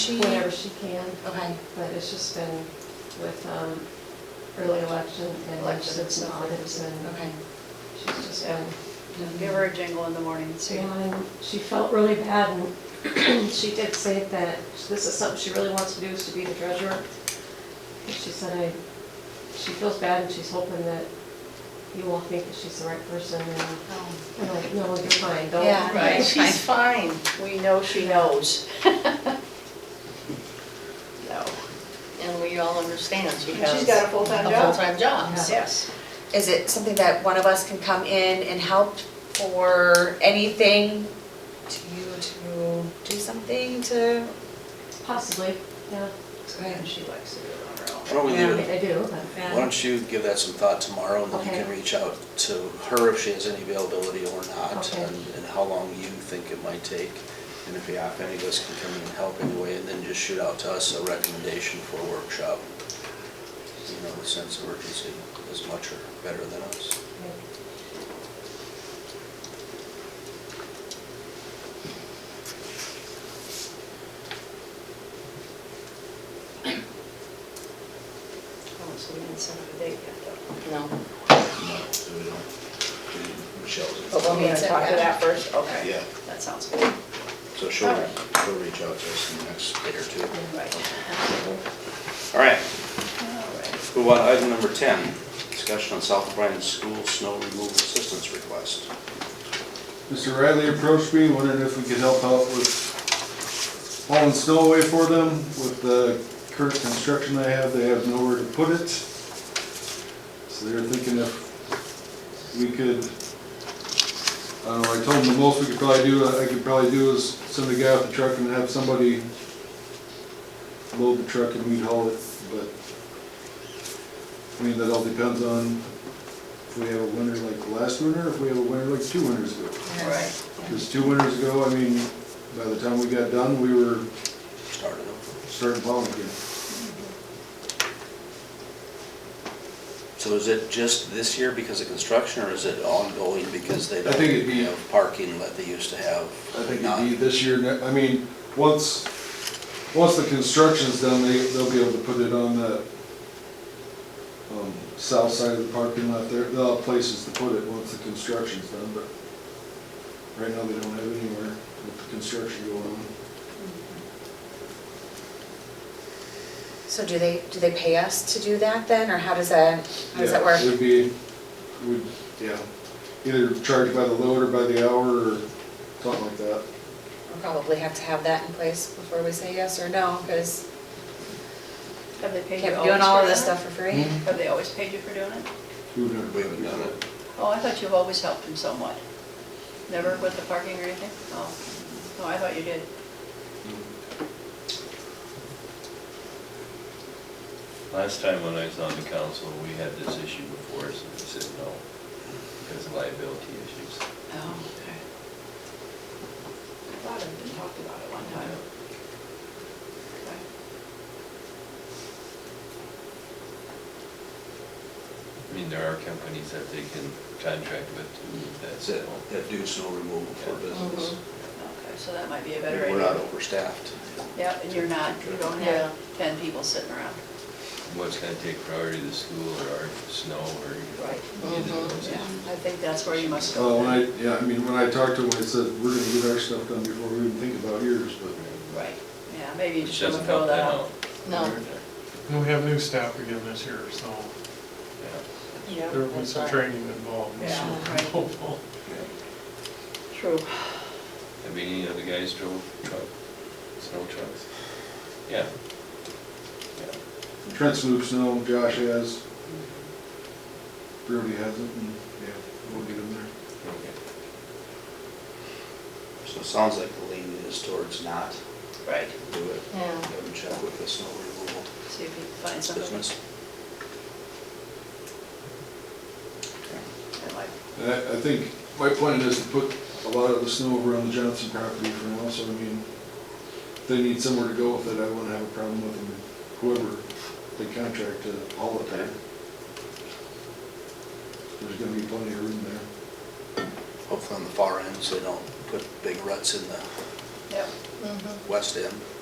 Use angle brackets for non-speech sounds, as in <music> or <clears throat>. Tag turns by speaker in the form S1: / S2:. S1: She,
S2: whenever she can,
S1: okay,
S2: but it's just been with um, early election and
S1: Election and
S2: elections and
S1: stuff.
S2: audits and
S1: okay.
S2: she's just been.
S3: Give her a jingle in the morning, so you
S2: And she felt really bad and <clears throat> she did say that this is something she really wants to do is to be the treasurer. And She said, I, she feels bad and she's hoping that you all think that she's the right person and
S1: Oh,
S2: I'm like, no, you're fine, don't.
S1: Yeah. Right.
S3: Oh, She's fine, we know she knows. No.
S1: And we all understand she
S3: And
S1: has.
S3: she's got a full-time
S1: a
S3: job.
S1: full-time job, so-
S3: Yes.
S4: Is it something that one of us can come in and help or anything to you to do something to?
S2: <laughs> Possibly, yeah,
S3: And she likes to do it on her own.
S5: Why don't we
S2: I
S5: leave it-
S2: mean, I do, but.
S5: why don't you give that some thought tomorrow, and then you
S2: Okay.
S5: can reach out to her if she has any availability or not,
S2: Okay.
S5: and, and how long you think it might take. And if, yeah, if any of us can come in and help anyway, and then just shoot out to us a recommendation for a workshop. You know, the sense of urgency is much or better than us.
S3: Oh, So we didn't set up a date yet, though.
S1: No,
S5: No, we don't, we- Michelle's.
S3: But we'll need to
S4: set
S3: talk to that
S4: that.
S3: first, okay.
S5: Yeah,
S3: That sounds good.
S5: so she'll,
S3: Alright.
S5: she'll reach out to us in the next day or two.
S3: Right.
S5: All right,
S3: All right.
S5: Move on to item number 10, discussion on South Bryan School snow removal assistance request.
S6: Mr. Riley approached me, wondering if we could help out with hauling snow away for them. With the current construction they have, they have nowhere to put it. So they're thinking if we could, I don't know, I told them the most we could probably do, I could probably do is send a guy off the truck and have somebody load the truck and we'd haul it, but, I mean, that all depends on if we have a winter like last winter, if we have a winter like two winters ago.
S3: All right.
S6: Because two winters ago, I mean, by the time we got done, we were
S5: Started over.
S6: starting plowing again.
S5: So is it just this year because of construction, or is it ongoing because they don't?
S6: I think it'd be-
S5: have Parking that they used to have?
S6: I think
S5: not-
S6: it'd be this year, ne- I mean, once, once the construction's done, they, they'll be able to put it on the, um, south side of the parking lot there, they'll have places to put it once the construction's done, but right now they don't have anywhere with the construction going on.
S4: So do they, do they pay us to do that then, or how does that, how does that
S6: Yeah,
S4: work?
S6: It would be, would, yeah, either charged by the load or by the hour or something like that.
S4: We'll probably have to have that in place before we say yes or no, because
S3: Have they paid you
S4: can't
S3: always
S4: be doing all
S3: for
S4: of this
S3: doing
S4: stuff for free.
S3: it? Have they always paid you for doing it?
S6: We've never-
S5: We haven't done it.
S3: Oh, I thought you've always helped him somewhat. Never with the parking or anything? Oh, no, I thought you did.
S7: Last time when I was on the council, we had this issue before us, and we said no, because of liability issues.
S3: Oh, okay. I thought it had been talked about at one time. Okay.
S7: I mean, there are companies that they can contract with to move that
S5: That's it,
S7: snow.
S5: that do snow removal for business.
S1: Mm-hmm.
S3: Okay, so that might be a Mm-hmm. better idea.
S5: We're not overstaffed.
S3: Yep, and you're not, you don't
S1: Yeah.
S3: have ten people sitting around.
S7: What's gonna take priority, the school or our snow or
S3: Right. Mm-hmm.
S7: either of those?
S3: Yeah, I think that's where you must
S6: Uh,
S3: go.
S6: when I, yeah, I mean, when I talked to him, I said, we're gonna get our stuff done before we even think about yours, but.
S3: Right, yeah, maybe you
S7: Which
S3: just
S7: doesn't
S3: want throw
S7: help
S3: that
S7: that
S3: out.
S7: out.
S1: no.
S8: And we have new staff again this year, so
S7: Yeah.
S3: Yeah,
S8: there was some training involved.
S3: Yeah, right.
S8: <laughs> Hopeful.
S3: True.
S7: Have any of the guys drove truck, snow trucks? Yeah. Yeah.
S6: Trent's moved snow, Josh has. Brody hasn't, and, yeah, we'll get him there.
S7: Okay.
S5: So it sounds like the lean is towards not
S3: Right,
S5: do it.
S1: Yeah.
S5: Have them check with the snow removal
S3: see if you can find something
S5: business.
S3: that might,
S6: And I, I think, my plan is to put a lot of the snow over on the Johnson property for now, so I mean, if they need somewhere to go with it, I wouldn't have a problem with them, whoever they contract to haul it there. There's gonna be plenty of room there.
S5: Hopefully on the far end, so they don't put big ruts in the
S1: Mm-hmm.
S3: yep,
S5: west end.